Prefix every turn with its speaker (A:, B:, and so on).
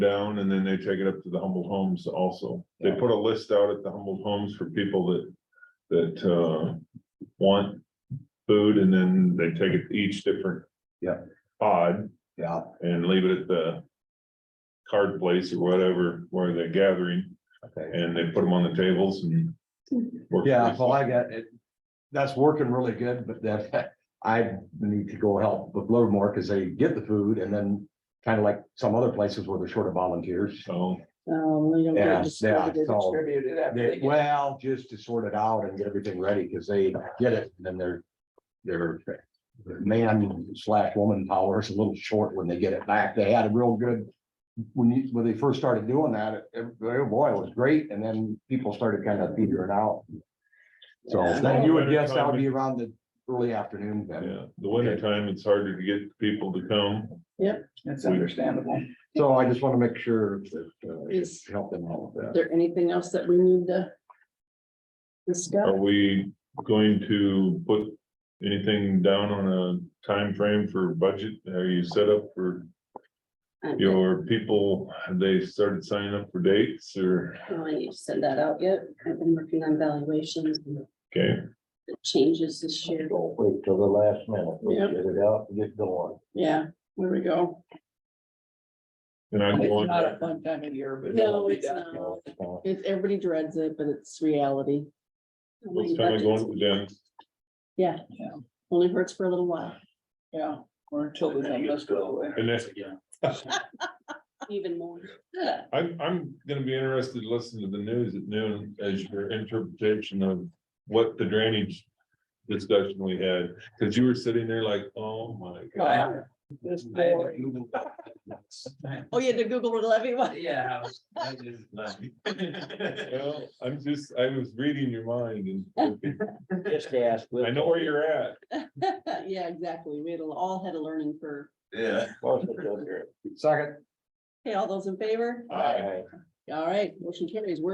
A: down and then they take it up to the Humboldt Homes also. They
B: Yeah.
A: put a list out at the Humboldt Homes for people that, that, uh, want food and then they take it to each different.
B: Yeah.
A: Pod
B: Yeah,
A: and leave it at the card place or whatever, where they're gathering
B: okay.
A: and they put them on the tables and. work
B: Yeah,
A: pretty-
B: well, I got it. That's working really good, but that I need to go help with little more because they get the food and then kind of like some other places where they're short of volunteers.
A: So,
C: Um, they don't
B: Yeah,
C: get
B: yeah,
C: distributed.
B: so
D: distributed after
B: they,
D: they get-
B: well, just to sort it out and get everything ready because they get it, and then they're they're their man slash woman power is a little short when they get it back. They had a real good when you, when they first started doing that, it- it- oh boy, it was great. And then people started kind of figuring it out. So
C: Yeah.
B: then you would guess that would be around the early afternoon then.
A: yeah, the winter time, it's harder to get people to come.
D: It's understandable.
B: So I just want to make sure that, uh,
C: Is
B: help them out with that.
C: there anything else that we need to discuss?
A: Are we going to put anything down on a time frame for budget? Are you set up for
C: I don't
A: your people? Have they started signing up for dates or,
C: know, I need to Send that out yet? I've been working on valuations and
A: okay?
C: the changes this year.
E: Don't wait till the last minute, we
C: Yeah.
E: get it out, and get going.
C: Yeah, there we go.
A: And I'm
D: It's
A: going,
D: not a fun time of year, but.
C: No,
D: it'll be
C: it's
D: done.
C: not. It's, everybody dreads it, but it's reality.
A: it's kind of going with them.
C: Yeah.
D: Yeah.
C: Only hurts for a little while,
D: Yeah, or until the numbers go away.
A: And that's,
C: even more.
A: I'm, I'm gonna be interested to listen to the news at noon as your interpretation of what the drainage discussion we had, because you were sitting there like, oh my god.
D: Wow, This boring.
C: Oh, you had to Google it everyone.
D: Yeah.
A: Well, I'm just, I was reading your mind and
E: Just ask.
A: I know where you're at.
C: Yeah, exactly. We had a- all had a learning curve.
A: Yeah.
E: you're.
B: Second.
C: Okay, all those in favor?
A: Aye.
C: All right, motion carries. We're